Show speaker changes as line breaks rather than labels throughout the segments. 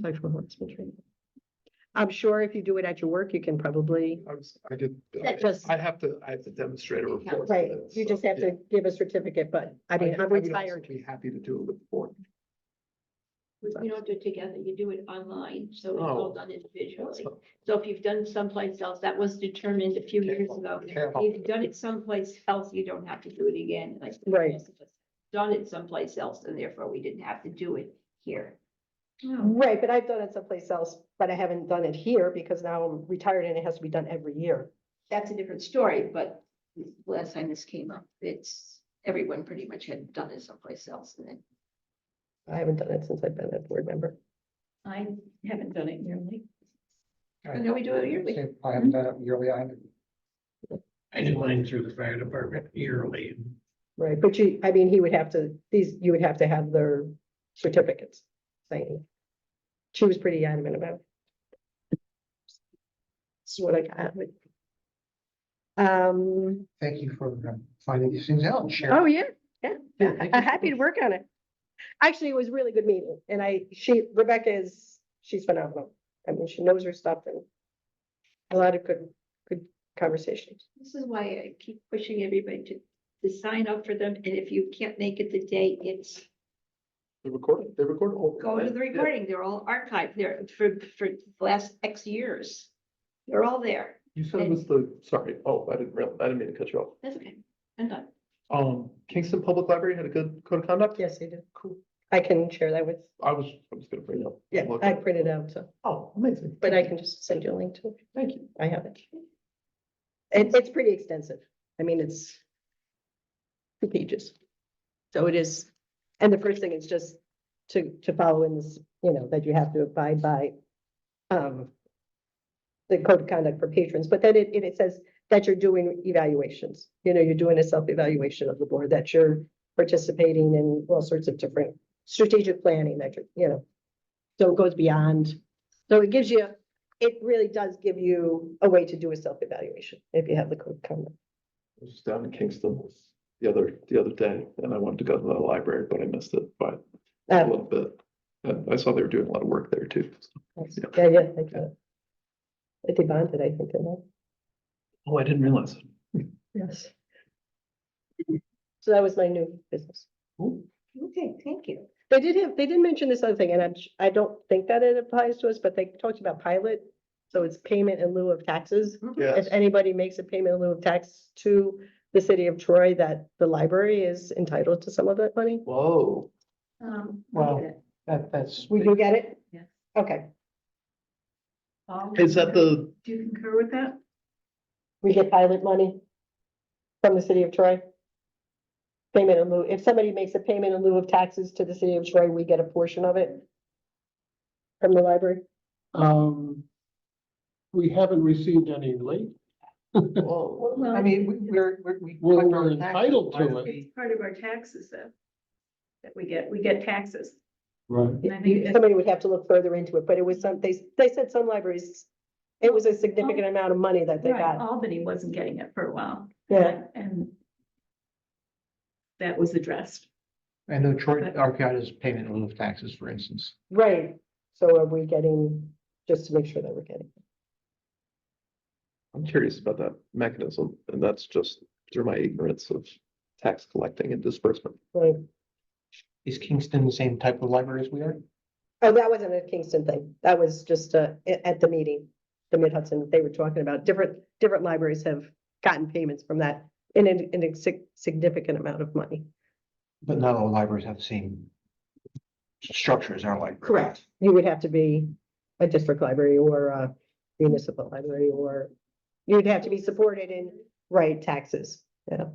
Sexual harassment training. I'm sure if you do it at your work, you can probably,
I was, I did,
That just-
I have to, I have to demonstrate a report. for
right,
this,
you
so,
just have
yeah.
to give a certificate, but I mean,
I
I'm
would also
retired.
Be happy to do it with the board.
We don't do it together, you do it online, so it's all
Oh.
done individually. So if you've done someplace else, that was determined a few
Can't
years
help-
ago.
can't help
If you've done it someplace else, you don't have to do it again, like.
Right.
Done it someplace else, and therefore we didn't have to do it here. Oh.
Right, but I've done it someplace else, but I haven't done it here because now I'm retired and it has to be done every year.
That's a different story, but last time this came up, it's, everyone pretty much had done it someplace else, and then
I haven't done it since I've been a board member.
I haven't done it yearly.
I-
I know we do it yearly.
Same, I haven't done it yearly either.
I did mine through the fire department yearly.
Right, but you, I mean, he would have to, these, you would have to have their certificates saying. She was pretty adamant about. it. This is what I got. Um,
Thank you for um, finding these things out and sharing.
oh, yeah,
Yeah, thank you.
I'm happy to work on it. Actually, it was a really good meeting and I, she, Rebecca is, she's phenomenal. I mean, she knows her stuff and a lot of good, good conversations.
This is why I keep pushing everybody to, to sign up for them, and if you can't make it the day, it's
They recorded, they recorded. all-
go to the
Yeah.
recording, they're all archived there for, for the last X years. They're all there,
You said it was the, sorry, oh, I didn't real, I didn't mean to cut you off.
that's okay, I'm done.
Um, Kingston Public Library had a good code of conduct?
Yes, they did.
Cool.
I can share that with,
I was, I was gonna bring it up.
yeah,
Look.
I printed out, so.
Oh, amazing.
But I can just send you a link to it.
Thank you.
I have it. It, it's pretty extensive. I mean, it's two pages. So it is, and the first thing is just to, to follow in this, you know, that you have to abide by um, the code of conduct for patrons, but then it, it it says that you're doing evaluations. You know, you're doing a self-evaluation of the board, that you're participating in all sorts of different strategic planning that you're, you know. So it goes beyond, so it gives you it really does give you a way to do a self-evaluation if you have the code of conduct.
I was down in Kingston the other, the other day, and I wanted to go to the library, but I missed it by a
Um,
little bit. And uh, I saw they were doing a lot of work there too.
Yeah, yeah, they got it. They bonded, I think, didn't
Oh, I didn't realize.
they? Yes. So that was my new business.
Ooh,
Okay, thank you.
They did have, they did mention this other thing, and I'm, I don't think that it applies to us, but they talked about pilot. So it's payment in lieu of taxes. If
Yes,
anybody makes a payment in lieu of tax to the city of Troy, that the library is entitled to some of that money.
whoa.
Um,
Wow. That, that's.
We do get it?
Yeah.
Okay,
Is that the,
Do you concur with that?
we get pilot money from the city of Troy. Payment in lieu, if somebody makes a payment in lieu of taxes to the city of Troy, we get a portion of it from the library.
Um, we haven't received any late.
whoa,
Well,
I mean, we- we're, we're. we
We're-
collect
we're
our taxes.
entitled to
Why
it.
we-
It's part of our taxes though. That we get, we get taxes.
Right.
And I think that-
Somebody would have to look further into it, but it was some, they, they said some libraries, it was a significant amount of money that they
Oh. Right, Oh.
got.
Albany wasn't getting it for a while.
Yeah,
And that was addressed.
I know Troy, Archaeada's payment in lieu of taxes, for instance.
right. So are we getting, just to make sure that we're getting,
I'm curious about that mechanism, and that's just through my ignorance of tax collecting and disbursement.
right?
Is Kingston the same type of library as we are?
Oh, that wasn't a Kingston thing. That was just uh, a- at the meeting, the Mid Hudson, they were talking about different, different libraries have gotten payments from that in an, in a sig- significant amount of money.
But not all libraries have the same structure as our library.
You would have to be a district library or a municipal library, or you'd have to be supported in, right, taxes, yeah.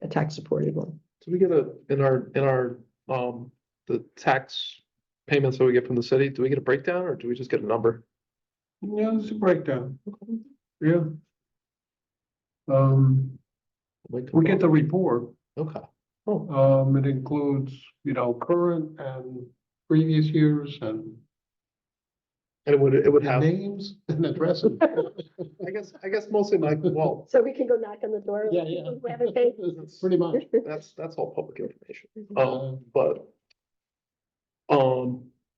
A tax supported one.
Do we get a, in our, in our, um, the tax payments that we get from the city, do we get a breakdown or do we just get a number?
Yeah, it's a breakdown. Yeah. Um,
Like,
we get the report.
Okay, Oh,
Um, it includes, you know, current and previous years and
and it would, it would have, I
names and addresses.
guess, I guess mostly my, well,
So we can go knock on the door.
Yeah, yeah.
We haven't paid.
Pretty much.
Oh.
Oh.
that's, that's all public information. Um, but. Um,